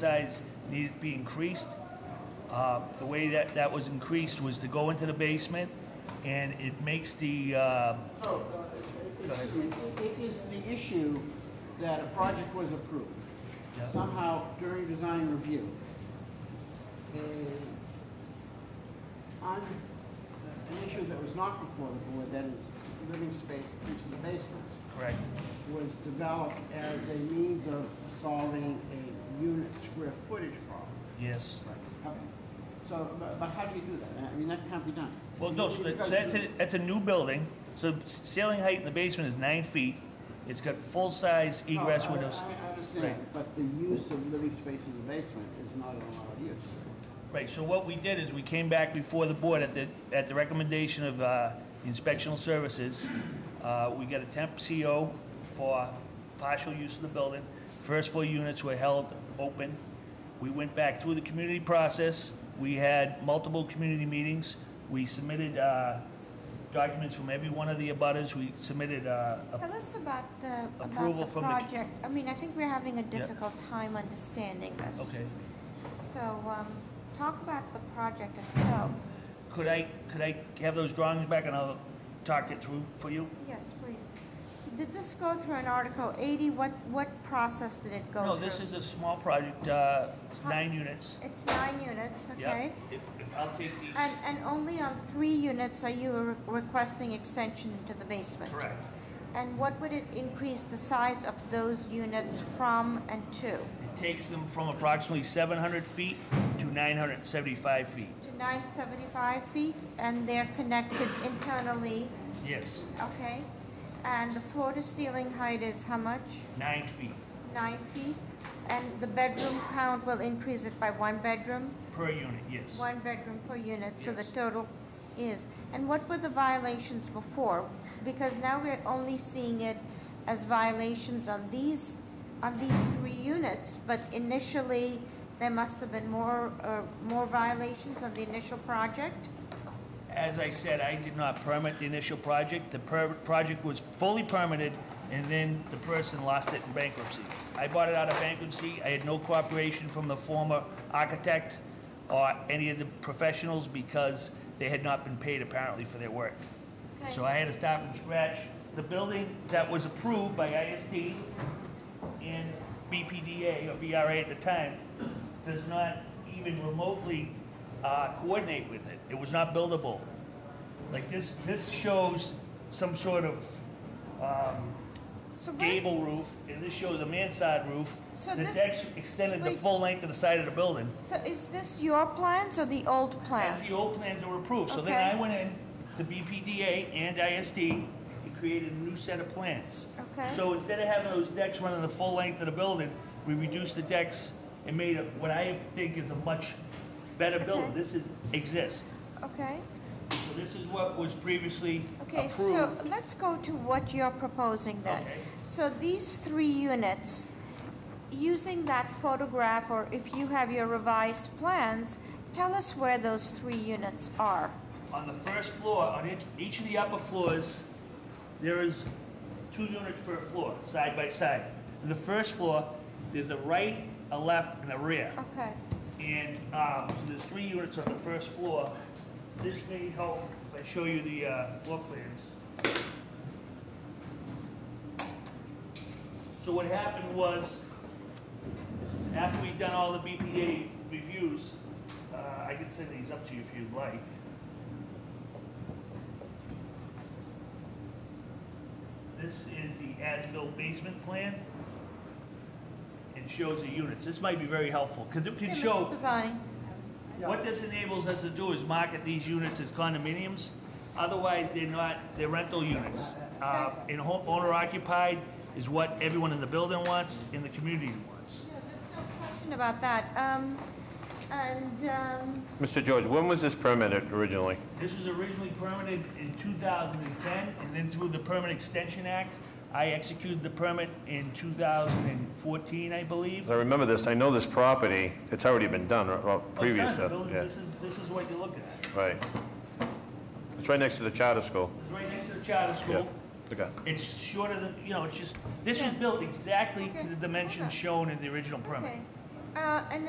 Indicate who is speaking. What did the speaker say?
Speaker 1: size needed to be increased. Uh, The way that that was increased was to go into the basement, and it makes the, uh,
Speaker 2: So, uh, excuse me, it- it is the issue that a project was approved.
Speaker 1: Yeah.
Speaker 2: Somehow during design review, a- on an issue that was not before the board, that is living space into the basement,
Speaker 1: correct,
Speaker 2: was developed as a means of solving a unit square footage problem.
Speaker 1: yes.
Speaker 2: Okay. So, but, but how do you do that? I mean, that can't be done.
Speaker 1: Well, no, so that- so that's, a- that's a new building, so the ceiling height in the basement is nine feet. It's got full-size
Speaker 2: No,
Speaker 1: egress
Speaker 2: Oh, I-
Speaker 1: windows.
Speaker 2: I I understand,
Speaker 1: Right.
Speaker 2: but the use of living space in the basement is not an allowed use.
Speaker 1: Right, so what we did is we came back before the board at the, at the recommendation of uh, Inspectional Services. Uh, We got a temp CO for partial use of the building. First floor units were held open. We went back through the community process. We had multiple community meetings. We submitted uh, documents from every one of the abutters. We submitted uh, a
Speaker 3: Tell us about the, about
Speaker 1: Approval
Speaker 3: the
Speaker 1: from the-
Speaker 3: project. I mean, I think we're having a difficult time understanding this.
Speaker 1: Okay.
Speaker 3: So, um, talk about the project itself.
Speaker 1: Could I, could I have those drawings back and I'll talk it through for you?
Speaker 3: Yes, please. So did this go through an Article eighty? What, what process did it
Speaker 1: No,
Speaker 3: go through?
Speaker 1: this is a small project, uh, it's nine units.
Speaker 3: It's nine units,
Speaker 1: Yeah.
Speaker 3: okay?
Speaker 1: If, if I'll take these.
Speaker 3: And, and only on three units are you re- requesting extension to the basement?
Speaker 1: Correct.
Speaker 3: And what would it increase the size of those units from and to?
Speaker 1: It takes them from approximately 700 feet to 975 feet.
Speaker 3: to nine seventy-five feet, and they're connected internally,
Speaker 1: Yes,
Speaker 3: okay? And the floor-to-ceiling height is how much?
Speaker 1: nine feet
Speaker 3: Nine feet? And the bedroom count will increase it by one bedroom,
Speaker 1: per unit, yes.
Speaker 3: one bedroom per unit, so the
Speaker 1: Yes.
Speaker 3: total is. And what were the violations before? Because now we're only seeing it as violations on these, on these three units, but initially, there must have been more, uh, more violations on the initial project?
Speaker 1: As I said, I did not permit the initial project. The per- project was fully permitted, and then the person lost it in bankruptcy. I bought it out of bankruptcy. I had no cooperation from the former architect or any of the professionals because they had not been paid apparently for their work.
Speaker 3: Okay.
Speaker 1: So I had to start from scratch. The building that was approved by ISD and BPDA or BRA at the time does not even remotely uh, coordinate with it. It was not buildable. Like this, this shows some sort of um,
Speaker 3: So where's-
Speaker 1: gable roof, and this shows a mansard roof.
Speaker 3: So
Speaker 1: The
Speaker 3: this-
Speaker 1: decks extended the
Speaker 3: wait.
Speaker 1: full length of the side of the building.
Speaker 3: So is this your plans or the old
Speaker 1: That's
Speaker 3: plans?
Speaker 1: the old plans that were approved. So then
Speaker 3: Okay.
Speaker 1: I went in to BPDA and ISD and created a new set of plans.
Speaker 3: Okay.
Speaker 1: So instead of having those decks running the full length of the building, we reduced the decks and made it what I think is a much better building.
Speaker 3: Okay.
Speaker 1: This is, exists.
Speaker 3: Okay,
Speaker 1: So this is what was previously
Speaker 3: okay, so
Speaker 1: approved.
Speaker 3: let's go to what you're proposing then.
Speaker 1: Okay.
Speaker 3: So these three units, using that photograph or if you have your revised plans, tell us where those three units are.
Speaker 1: On the first floor, on each- each of the upper floors, there is two units per floor, side by side. On the first floor, there's a right, a left, and a rear.
Speaker 3: Okay,
Speaker 1: And um, so there's three units on the first floor. This may help if I show you the uh, floor plans. So what happened was, after we'd done all the BPA reviews, uh, I can send these up to you if you'd like. This is the as-built basement plan. and shows the units. This might be very helpful, because it
Speaker 3: Okay,
Speaker 1: can
Speaker 3: Mr.
Speaker 1: show
Speaker 3: Pisani.
Speaker 2: Yeah.
Speaker 1: what this enables us to do is market these units as condominiums. Otherwise, they're not, they're rental units. Uh, And home- owner occupied is what everyone in the building wants, in the community wants.
Speaker 3: No, there's no question about that. Um, and, um,
Speaker 4: Mr. George, when was this permitted originally?
Speaker 1: This was originally permitted in 2010, and then through the Permit Extension Act, I executed the permit in 2014, I believe.
Speaker 4: I remember this, I know this property, it's already been done, right, well,
Speaker 1: Oh, it's
Speaker 4: previous,
Speaker 1: not a
Speaker 4: uh,
Speaker 1: building.
Speaker 4: yeah,
Speaker 1: This is, this is what you're looking at.
Speaker 4: right. It's right next to the charter school.
Speaker 1: It's right next to the charter
Speaker 4: Yeah,
Speaker 1: school.
Speaker 4: okay.
Speaker 1: It's shorter than, you know, it's just, this was
Speaker 3: Yeah.
Speaker 1: built exactly
Speaker 3: Okay.
Speaker 1: to the
Speaker 3: Hold on.
Speaker 1: dimensions shown in the original permit.
Speaker 3: okay. uh, an